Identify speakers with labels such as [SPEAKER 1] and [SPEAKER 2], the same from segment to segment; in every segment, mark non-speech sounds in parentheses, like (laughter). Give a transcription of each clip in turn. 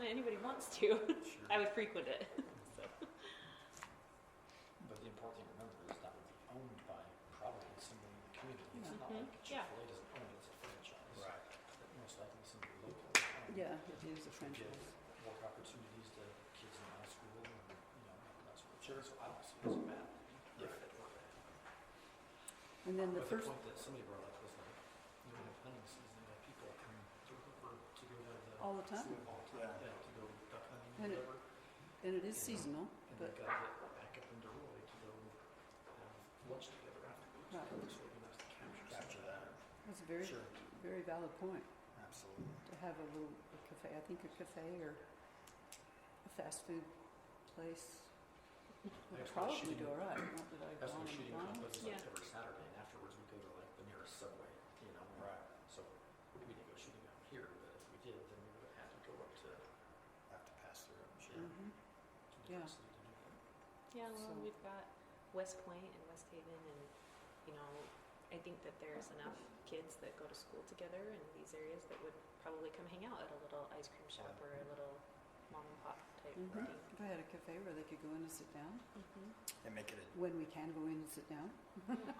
[SPEAKER 1] when anybody wants to. (laughs) I would frequent it. So,
[SPEAKER 2] But the important thing to remember is that would be owned by probably somebody in the community. It's not
[SPEAKER 3] Mm-hmm.
[SPEAKER 1] Mhm.
[SPEAKER 2] like
[SPEAKER 1] Yeah.
[SPEAKER 2] Chick-fil-A doesn't own it, it's a franchise.
[SPEAKER 4] Right.
[SPEAKER 2] But most likely somebody local. um,
[SPEAKER 3] Yeah, it is
[SPEAKER 2] would
[SPEAKER 3] a franchise.
[SPEAKER 2] give Work opportunities to kids in high school and, you know, that sort of thing. So I don't see it as bad.
[SPEAKER 3] And then the
[SPEAKER 2] But the
[SPEAKER 3] first,
[SPEAKER 2] point that somebody brought up was like, you know, hunting season, like people come to Hooper to go to the.
[SPEAKER 3] all the time,
[SPEAKER 2] all the time, Yeah, to go duck hunting
[SPEAKER 3] And
[SPEAKER 2] or
[SPEAKER 3] it-
[SPEAKER 2] whatever.
[SPEAKER 3] and it is seasonal,
[SPEAKER 2] And they
[SPEAKER 3] but
[SPEAKER 2] gotta get back up into Roy to go have lunch together afterwards.
[SPEAKER 3] Right.
[SPEAKER 2] So it'd be nice to capture. Capture that.
[SPEAKER 3] that's a very,
[SPEAKER 2] Sure.
[SPEAKER 3] very valid point,
[SPEAKER 4] Absolutely.
[SPEAKER 3] to have a little a cafe, I think a cafe or a fast food place would
[SPEAKER 2] That's what
[SPEAKER 3] probably
[SPEAKER 2] shooting-
[SPEAKER 3] do all right, not that I've
[SPEAKER 2] That's what
[SPEAKER 3] gone and
[SPEAKER 2] shooting
[SPEAKER 3] gone.
[SPEAKER 2] club is
[SPEAKER 1] Yeah.
[SPEAKER 2] like every Saturday and afterwards we go to like the nearest subway, you know?
[SPEAKER 4] Right.
[SPEAKER 2] So we didn't go shooting out here, but if we did, then we would have had to go up to,
[SPEAKER 4] Have to pass through.
[SPEAKER 2] yeah, to
[SPEAKER 3] Mhm.
[SPEAKER 2] the
[SPEAKER 3] Yeah.
[SPEAKER 2] different city to do that.
[SPEAKER 1] yeah, well,
[SPEAKER 3] So-
[SPEAKER 1] we've got West Point and West Haven, and you know, I think that there's enough kids that go to school together in these areas that would probably come hang out at a little ice cream shop or a little mom and pop type
[SPEAKER 3] Mhm.
[SPEAKER 1] thing.
[SPEAKER 3] If I had a cafe where they could go in and sit down,
[SPEAKER 1] Mm-hmm.
[SPEAKER 4] And make it a,
[SPEAKER 3] when we can go in and sit down,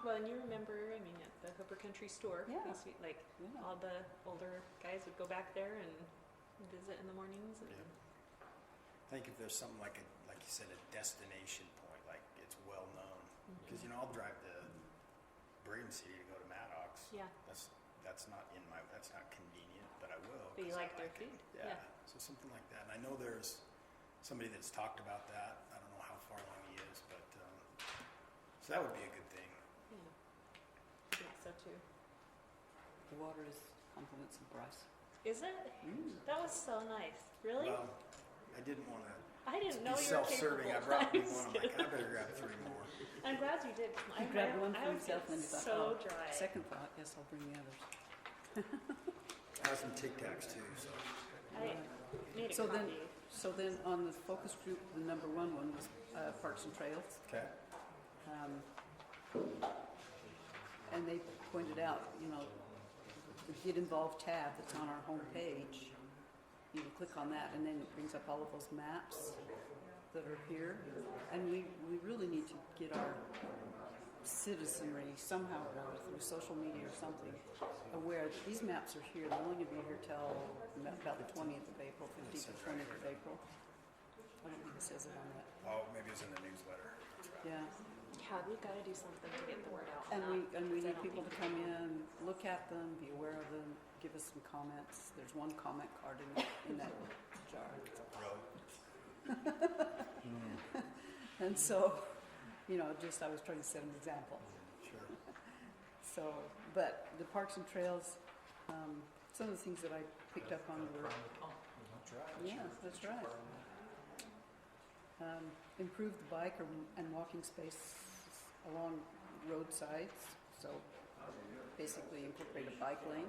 [SPEAKER 1] Well, and you remember, I mean, at the Hooper Country Store,
[SPEAKER 3] Yeah.
[SPEAKER 1] used to be, like
[SPEAKER 3] yeah,
[SPEAKER 1] all the older guys would go back there and visit in the mornings. And,
[SPEAKER 4] Yeah. I think if there's something like a, like you said, a destination point, like it's well known.
[SPEAKER 1] Mm-hmm.
[SPEAKER 4] Cause you know, I'll drive to Brigham City to go to Maddox.
[SPEAKER 1] yeah,
[SPEAKER 4] That's, that's not in my, that's not convenient, but I will.
[SPEAKER 1] But you
[SPEAKER 4] 'cause I
[SPEAKER 1] like their
[SPEAKER 4] it.
[SPEAKER 1] food,
[SPEAKER 4] Yeah,
[SPEAKER 1] yeah.
[SPEAKER 4] so something like that. And I know there's somebody that's talked about that. I don't know how far along he is, but, um, so that would be a good thing.
[SPEAKER 1] yeah, I think so too.
[SPEAKER 3] the water is compliments of Bryce.
[SPEAKER 1] Is it?
[SPEAKER 3] Mm.
[SPEAKER 1] That was so nice. Really?
[SPEAKER 4] Well, I didn't wanna
[SPEAKER 1] (laughs) I didn't
[SPEAKER 4] be
[SPEAKER 1] know you were
[SPEAKER 4] self-serving.
[SPEAKER 1] capable.
[SPEAKER 4] I brought me
[SPEAKER 1] I'm (laughs)
[SPEAKER 4] one. I'm like, I better grab three more.
[SPEAKER 1] just- I'm glad you did. I,
[SPEAKER 3] He grabbed one
[SPEAKER 1] I
[SPEAKER 3] for
[SPEAKER 1] would
[SPEAKER 3] himself
[SPEAKER 1] get
[SPEAKER 3] and he's like,
[SPEAKER 1] so
[SPEAKER 3] oh,
[SPEAKER 1] dry.
[SPEAKER 3] second thought, yes, I'll bring the others.
[SPEAKER 4] I have some Tic Tacs too, so.
[SPEAKER 1] I made a
[SPEAKER 3] So
[SPEAKER 1] copy.
[SPEAKER 3] then- So then on the focus group, the number one one was uh, Parks and Trails.
[SPEAKER 4] Okay.
[SPEAKER 3] Um, And they pointed out, you know, the Get Involved tab that's on our homepage, you can click on that and then it brings up all of those maps that are here. And we, we really need to get our citizenry somehow, or other, through social media or something, aware that these maps are here, they're only gonna be here till about the twentieth of April, fifteenth or twentieth of April. I don't think it says it on that,
[SPEAKER 4] Oh, maybe it was in the newsletter. That's right.
[SPEAKER 3] yeah.
[SPEAKER 1] yeah, we've got to do something to get the word out. on
[SPEAKER 3] And we,
[SPEAKER 1] that,
[SPEAKER 3] and we
[SPEAKER 1] because I
[SPEAKER 3] need
[SPEAKER 1] don't
[SPEAKER 3] people
[SPEAKER 1] think
[SPEAKER 3] to
[SPEAKER 1] we
[SPEAKER 3] come
[SPEAKER 1] do.
[SPEAKER 3] in, look at them, be aware of them, give us some comments. There's one comment card in, that- in that jar.
[SPEAKER 4] Really?
[SPEAKER 3] (laughs) And so, you know, just I was trying to set an example.
[SPEAKER 4] Sure.
[SPEAKER 3] So, but the parks and trails, um, some of the things that I picked up on were,
[SPEAKER 2] That's right.
[SPEAKER 3] yeah, that's right. Um, improve the bike or, and walking space along roadsides, so basically incorporate a bike lane.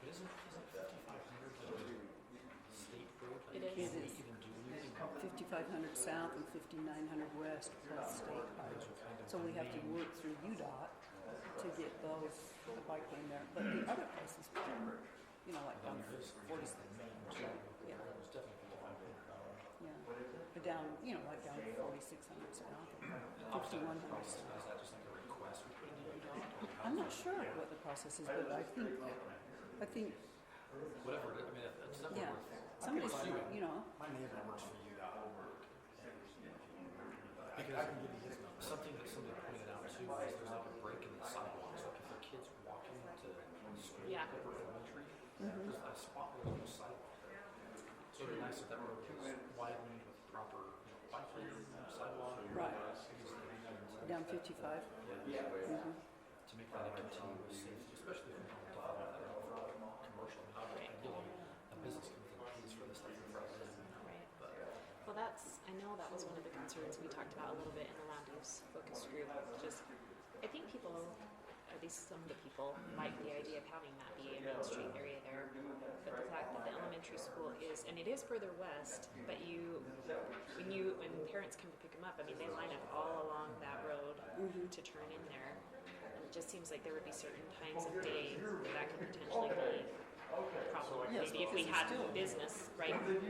[SPEAKER 2] But isn't, isn't fifty-five hundred the state road? Like,
[SPEAKER 1] It is.
[SPEAKER 2] can't
[SPEAKER 3] It
[SPEAKER 2] we
[SPEAKER 3] is.
[SPEAKER 2] Even do anything about that?
[SPEAKER 3] 5,500 south and 5,900 west plus state park. So we have to work through UDOT to get those, the bike lane there, but the other places, you know, like down forty, yeah,
[SPEAKER 2] It's definitely fifty-five hundred dollars.
[SPEAKER 3] yeah. Or down, you know, like down forty-six hundred south and fifty-one hundred south.
[SPEAKER 2] Is that just like a request we put in the UDOT?
[SPEAKER 3] I'm not sure what the process is, but I think, I think,
[SPEAKER 2] Whatever, it is. I mean, it- it's
[SPEAKER 3] yeah,
[SPEAKER 2] definitely worth.
[SPEAKER 3] somebody's, you know,
[SPEAKER 4] My neighbor works for you dot org.
[SPEAKER 2] Because something that somebody pointed out too is there's like a break in the sidewalks, like if a kid's walking to school,
[SPEAKER 1] Yeah.
[SPEAKER 2] like over elementary, there's a spot where there's no sidewalk there. So it'd be nice if that road was widened with proper, you know, bike lane, sidewalk.
[SPEAKER 3] Right.
[SPEAKER 2] because then we know
[SPEAKER 3] down fifty-five. Mm-hmm.
[SPEAKER 2] To make that a continuous safety, especially if we're talking about that for commercial, I mean, I get you, a business can make fees for this type of problem.
[SPEAKER 1] Right.
[SPEAKER 2] But
[SPEAKER 1] Well, that's, I know that was one of the concerns we talked about a little bit in the land use focus group. Just, I think people, at least some of the people, like the idea of having that be a main street area there. But the fact that the elementary school is, and it is further west, but you, when you, when parents come to pick them up, I mean, they line up all along that road
[SPEAKER 3] Mm-hmm.
[SPEAKER 1] to turn in there. And it just seems like there would be certain times of day where that could potentially be a problem.
[SPEAKER 3] Yes,
[SPEAKER 1] Maybe if we
[SPEAKER 3] because
[SPEAKER 1] had
[SPEAKER 3] it's still-
[SPEAKER 1] business right